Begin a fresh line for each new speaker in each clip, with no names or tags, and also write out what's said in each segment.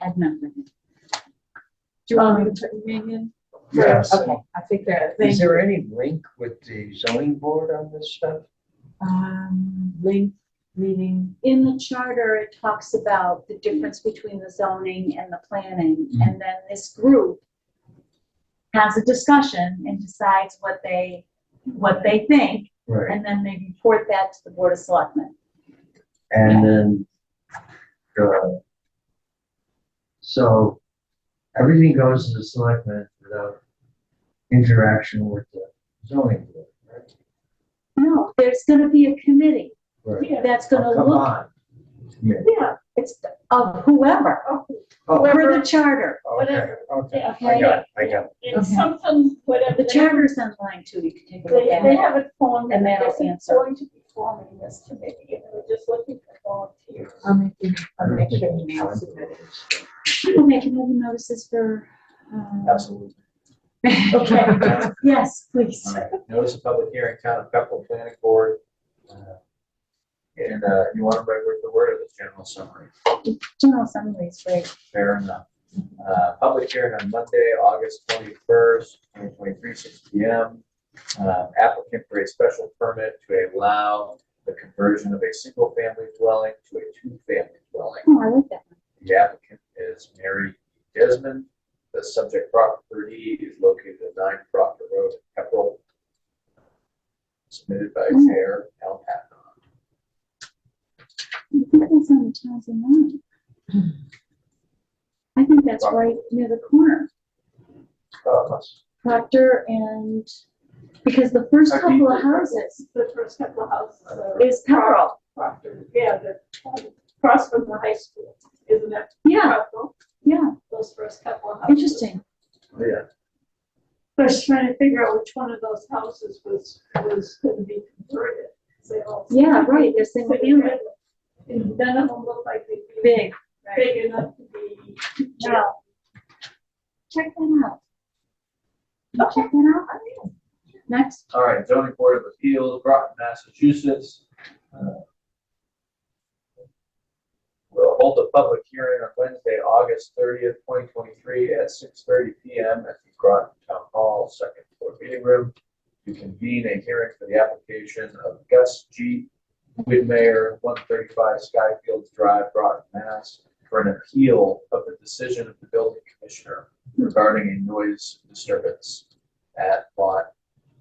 I've not read it.
Do you
Um,
want me to put your name in?
Yes.
Okay, I think that,
Is
thank you.
there any link with the zoning board on this stuff?
Um, link, meeting,
Um, In the charter, it talks about the difference between the zoning and the planning, and then this group has a discussion and decides what they, what they think,
Right.
and then they report that to the Board of Selectmen.
And then, uh, so everything goes to the selectmen without interaction with the zoning board, right?
No, there's gonna be a committee
Right.
that's
Oh,
gonna
Come
look,
on. Yeah.
yeah, it's of whoever,
Oh,
whoever the charter.
okay,
whatever.
okay. I
Okay.
got it, I got it.
It's
Okay.
something, whatever.
The charter's in line too, you can take a look
They,
at
they
it.
haven't formed,
And
and
that'll
they're
answer.
going to be forming this committee, and we're just looking for volunteers.
I'll make you, I'll
I
make
think
sure
I'm
you know.
trying to-
We'll make another notices for, uh,
Absolutely.
okay, yes, please.
All right. Notice of public hearing, town of Pepperell Planning Board. uh, And uh, you want to write with the word of the general summary.
General summaries, right?
Fair enough. Uh, Public hearing on Monday, August twenty-first, twenty twenty-three, six P M. Uh, Applicant for a special permit to allow the conversion of a single-family dwelling to a two-family dwelling.
Oh, I like that.
The applicant is Mary Desmond. The subject property is located at nine Proctor Road, Pepperell. Submitted by
Mm.
Chair Al Patton.
I think that's on the Townsend line. I think that's right near the corner,
Uh,
Proctor and, because the first couple of houses
The first couple of houses are
is Pepperell.
Proctor, yeah, the, um, across from the high school, isn't it?
Yeah,
Proctor,
yeah,
Those first couple of houses.
interesting.
Yeah,
I was trying to figure out which one of those houses was, was gonna be converted. They all-
Yeah, right, they're single family,
And none of them look like they'd be
big. right.
big enough to be.
Wow. Check that out. I'll Check that out. Next.
all right, zoning board of appeals, Groton, Massachusetts. Uh, We'll hold a public hearing on Wednesday, August thirtieth, twenty twenty-three at six thirty P M at the Groton Town Hall, second floor meeting room. To convene a hearing for the application of Gus G. Whitmire, one thirty-five Skyfields Drive, Groton, Mass. For an appeal of the decision of the building commissioner regarding a noise disturbance at lot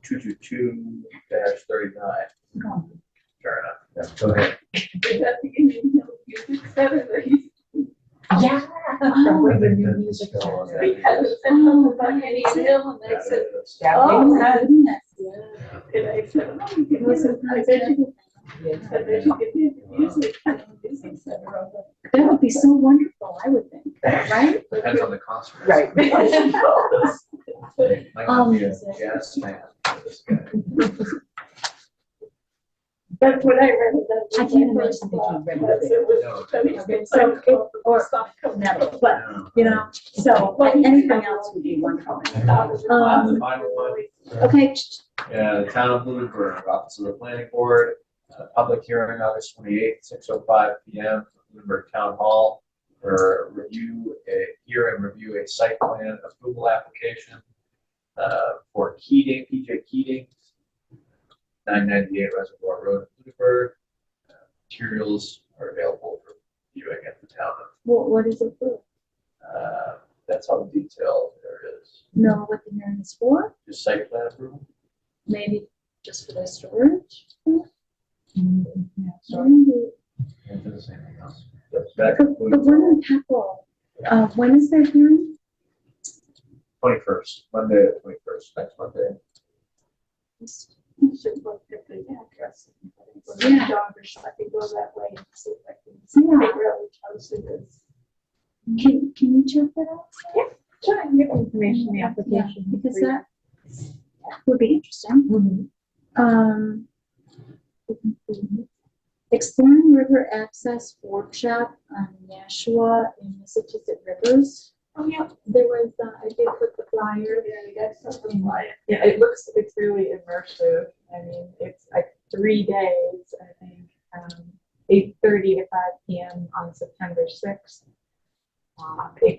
two two two dash thirty-nine.
No.
Fair enough. Yeah, Go ahead.
Is that the Indian Hill Music Center that he's
Yeah.
Oh,
With the new
That's
music
still on
center.
there.
Because it's something about Indian Hill and they said,
Yeah.
Oh,
my goodness.
and I said, oh, you can
Listen,
listen, I bet you, I bet you could be a music, music center on that.
That would be so wonderful, I would think, right?
Depends on the concert.
Right.
Might not be a
Um,
jazz fan, this guy.
That's what I read. that's
I
what
can't
first
imagine that you
thought.
read
That's It was, I mean, it's like, oh, it's not coming
Never,
out.
but,
No.
you know, so, but anything else would be wonderful.
Uh,
Um,
The final one,
Okay, ch-
Yeah, the town of Lunenburg, Office of the Planning Board, uh, public hearing August twenty-eighth, six oh five P M, Lunenburg Town Hall. For review, a, hear and review a site plan approval application, uh, for Keating, P J Keating. Nine ninety-eight Reservoir Road, in Lunenburg. Uh, Materials are available for viewing at the town.
what, what is it for?
Uh, that's all the detail there is,
Know what the hearing is for?
just site plan approval.
Maybe just for the storage?
Mhm.
Maybe.
And does anything else. That
The the
concludes.
one in Pepperell, uh, when is their hearing?
Twenty-first, Monday, the twenty-first, next Monday.
Should look at the address.
Yeah.
Dog or something, I could go that way and see if I can
Yeah,
figure out which house it is.
can, can you check that out?
Sure, I can get information, the
Yeah,
application.
Because
for you.
that would be interesting.
Mhm.
Um, exploring river access workshop on Nashua and Massachusetts rivers.
Oh, yeah,
There was, uh, I did put the flyer.
you're there, you got something like.
Yeah, it looks, it's really immersive. I mean, it's like three days, I think, um, eight thirty to five PM on September sixth. Um, it